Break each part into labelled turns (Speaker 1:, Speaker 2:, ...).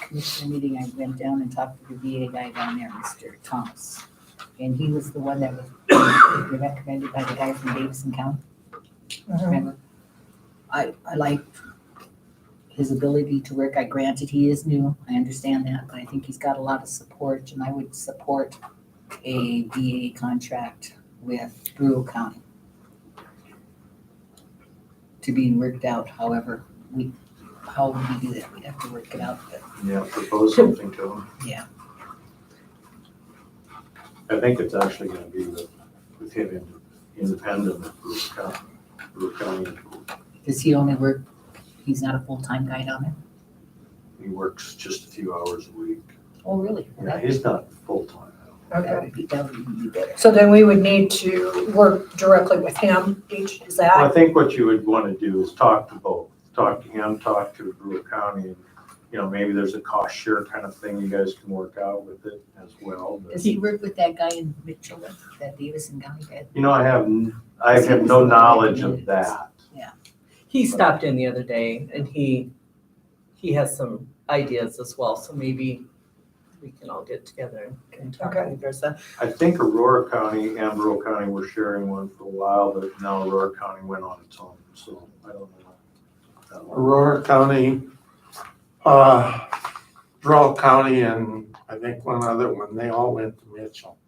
Speaker 1: commissioner meeting, I went down and talked to the VA guy down there, Mr. Thomas. And he was the one that was recommended by the guy from Davidson County, remember? I, I like his ability to work. I granted he is new, I understand that, but I think he's got a lot of support and I would support a VA contract with Brule County. To being worked out, however, we, how would we do that? We'd have to work it out, but
Speaker 2: Yeah, propose something to them.
Speaker 1: Yeah.
Speaker 2: I think it's actually gonna be with, with him in- independent of Bruce County, Bruce County.
Speaker 1: does he only work, he's not a full-time guy down there?
Speaker 2: He works just a few hours a week.
Speaker 1: Oh, really?
Speaker 2: Yeah,
Speaker 1: That
Speaker 2: he's not full-time.
Speaker 1: that
Speaker 3: Okay.
Speaker 1: would be, that would be better.
Speaker 3: So then we would need to work directly with him, each, is
Speaker 2: Well, I
Speaker 3: that?
Speaker 2: think what you would wanna do is talk to both, talk to him, talk to Brewer County. and, You know, maybe there's a cost share kind of thing you guys can work out with it as well. but-
Speaker 1: Does he work with that guy in Mitchell, that Davidson guy that?
Speaker 2: You know, I have, n- I have no knowledge of that.
Speaker 4: He stopped in the other day and he, he has some ideas as well, so maybe we can all get together and talk
Speaker 3: Okay.
Speaker 4: and address that.
Speaker 2: I think Aurora County and Rural County were sharing one for a while, but now Aurora County went on its own, so I don't know. that one.
Speaker 5: Aurora County, uh, Rural County and I think one other one, they all went to Mitchell.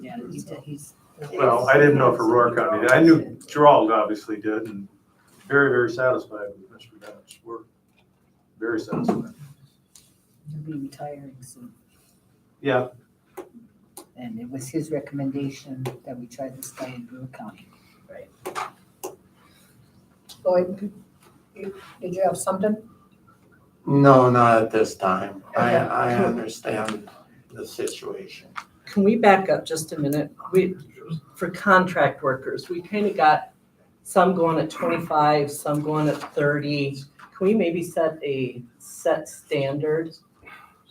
Speaker 1: Yeah, he's, he's.
Speaker 2: Well, I didn't know if Aurora County, did. I knew Gerald obviously did, and very, very satisfied with Mr. Bennett's work. Very satisfied.
Speaker 1: He'll be retiring soon.
Speaker 2: Yeah,
Speaker 1: And it was his recommendation that we try this guy in Brewer County.
Speaker 3: Lloyd, you- did you have something?
Speaker 5: No, not at this time. I,
Speaker 3: Okay.
Speaker 5: I understand the situation.
Speaker 4: Can we back up just a minute? We, for contract workers, we kind of got some going at twenty-five, some going at thirty. Can we maybe set a set standard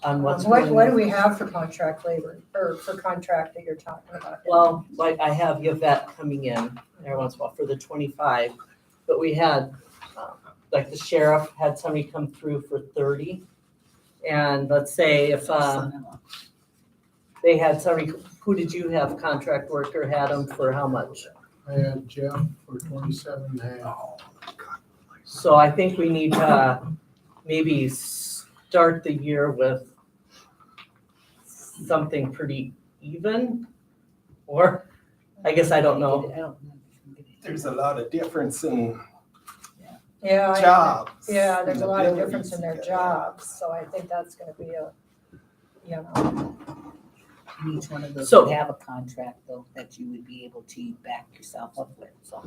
Speaker 4: on what's
Speaker 3: What,
Speaker 4: going
Speaker 3: what do
Speaker 4: on?
Speaker 3: we have for contract labor, or for contract that you're talking about?
Speaker 4: Well, like I have Yvette coming in every once in a while for the twenty-five, but we had, um, like the sheriff had somebody come through for thirty. And let's say if, uh,
Speaker 1: Son-in-law.
Speaker 4: they had somebody, who did you have contract worker had them for how much?
Speaker 6: I had Jeff for twenty-seven and a half.
Speaker 7: Oh.
Speaker 4: So I think we need to maybe start the year with something pretty even, or, I guess I don't know.
Speaker 1: I don't know if we can get it.
Speaker 8: There's a lot of difference in
Speaker 3: Oh, Yeah, I-
Speaker 8: jobs.
Speaker 3: yeah, there's a lot of
Speaker 8: and
Speaker 3: difference in their
Speaker 8: abilities.
Speaker 3: jobs, so I think that's gonna be a, you know,
Speaker 1: And Each one of those
Speaker 4: So-
Speaker 1: would have a contract though, that you would be able to back yourself up with, so.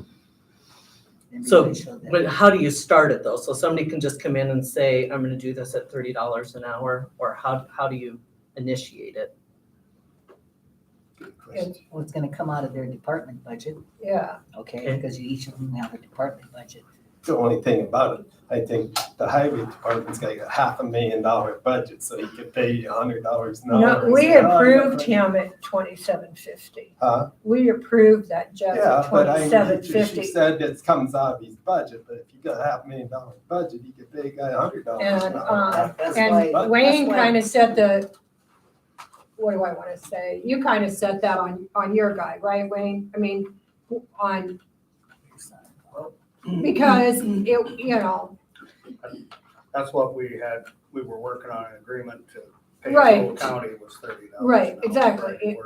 Speaker 1: And
Speaker 4: So,
Speaker 1: really show that-
Speaker 4: But how do you start it though? So somebody can just come in and say, I'm gonna do this at thirty dollars an hour, or how, how do you initiate it?
Speaker 1: Well, it's gonna come out of their department budget,
Speaker 3: yeah.
Speaker 1: okay,
Speaker 4: Okay.
Speaker 1: because you each of them have a department budget.
Speaker 8: The only thing about it, I think the highway department's got a half a million dollar budget, so he could pay you a hundred dollars an hour.
Speaker 3: No, we
Speaker 8: Yeah,
Speaker 3: approved him at twenty-seven fifty.
Speaker 8: Huh?
Speaker 3: We approved that Jeff
Speaker 8: Yeah,
Speaker 3: at
Speaker 8: but I,
Speaker 3: twenty-seven
Speaker 8: she- she
Speaker 3: fifty.
Speaker 8: said it comes out of his budget, but if you got a half million dollar budget, you could pay a guy a hundred dollars an
Speaker 3: And,
Speaker 8: hour.
Speaker 3: um,
Speaker 1: That- That's
Speaker 3: And
Speaker 1: why,
Speaker 8: But-
Speaker 3: Wayne
Speaker 1: that's why-
Speaker 3: kind of said the, what do I want to say? You kind of set that on, on your guy, right, Wayne? I mean, on,
Speaker 4: Mm.
Speaker 3: because it, you know,
Speaker 7: That's what we had, we were working on an agreement to pay
Speaker 3: Right.
Speaker 7: the county was thirty dollars.
Speaker 3: Right, exactly. It-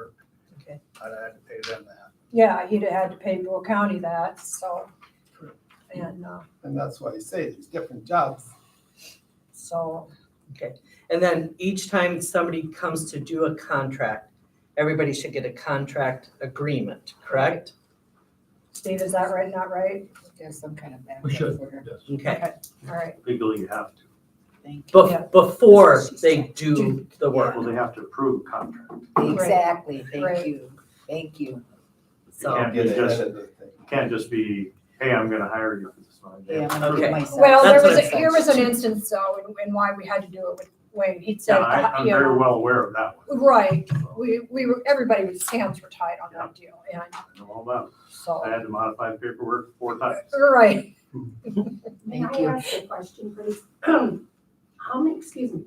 Speaker 4: Okay.
Speaker 7: I'd had to pay them that.
Speaker 3: yeah, he'd have had to pay Will County that, so. And, uh,
Speaker 8: And that's why I say there's different jobs.
Speaker 3: so,
Speaker 4: And then each time somebody comes to do a contract, everybody should get a contract agreement, correct?
Speaker 3: Steve, is that right, not right?
Speaker 1: there's some kind of
Speaker 2: We
Speaker 1: backup
Speaker 2: should.
Speaker 1: for her,
Speaker 4: Okay,
Speaker 3: All right,
Speaker 2: legally you have to.
Speaker 1: thank you.
Speaker 3: Yeah.
Speaker 4: Bef- before
Speaker 1: That's what she
Speaker 4: they
Speaker 1: said.
Speaker 4: do the work,
Speaker 2: Well, they have to approve a contract.
Speaker 1: Exactly, thank
Speaker 3: Right.
Speaker 1: you, thank you.
Speaker 2: You
Speaker 4: so,
Speaker 2: can't be
Speaker 8: Get
Speaker 2: just,
Speaker 8: ahead of the thing.
Speaker 2: you can't just be, hey, I'm gonna hire you for this money. They have
Speaker 1: Yeah,
Speaker 2: to
Speaker 1: I'm gonna
Speaker 2: approve
Speaker 1: do
Speaker 4: Okay.
Speaker 1: it myself.
Speaker 3: well, there
Speaker 4: That's
Speaker 3: was,
Speaker 4: what
Speaker 3: a-
Speaker 4: I
Speaker 3: here was an instance though, and, and why we had to do it with Wayne. He'd said,
Speaker 2: Yeah, I, I'm
Speaker 3: you know,
Speaker 2: very well aware of that one.
Speaker 3: Right, we, we were, everybody was, hands were tied on that deal, and
Speaker 2: I know all about
Speaker 3: so,
Speaker 2: it. I had to modify paperwork four times.
Speaker 3: right.
Speaker 1: Thank
Speaker 9: May
Speaker 1: you.
Speaker 9: I ask a question, please? How many, Um, excuse me,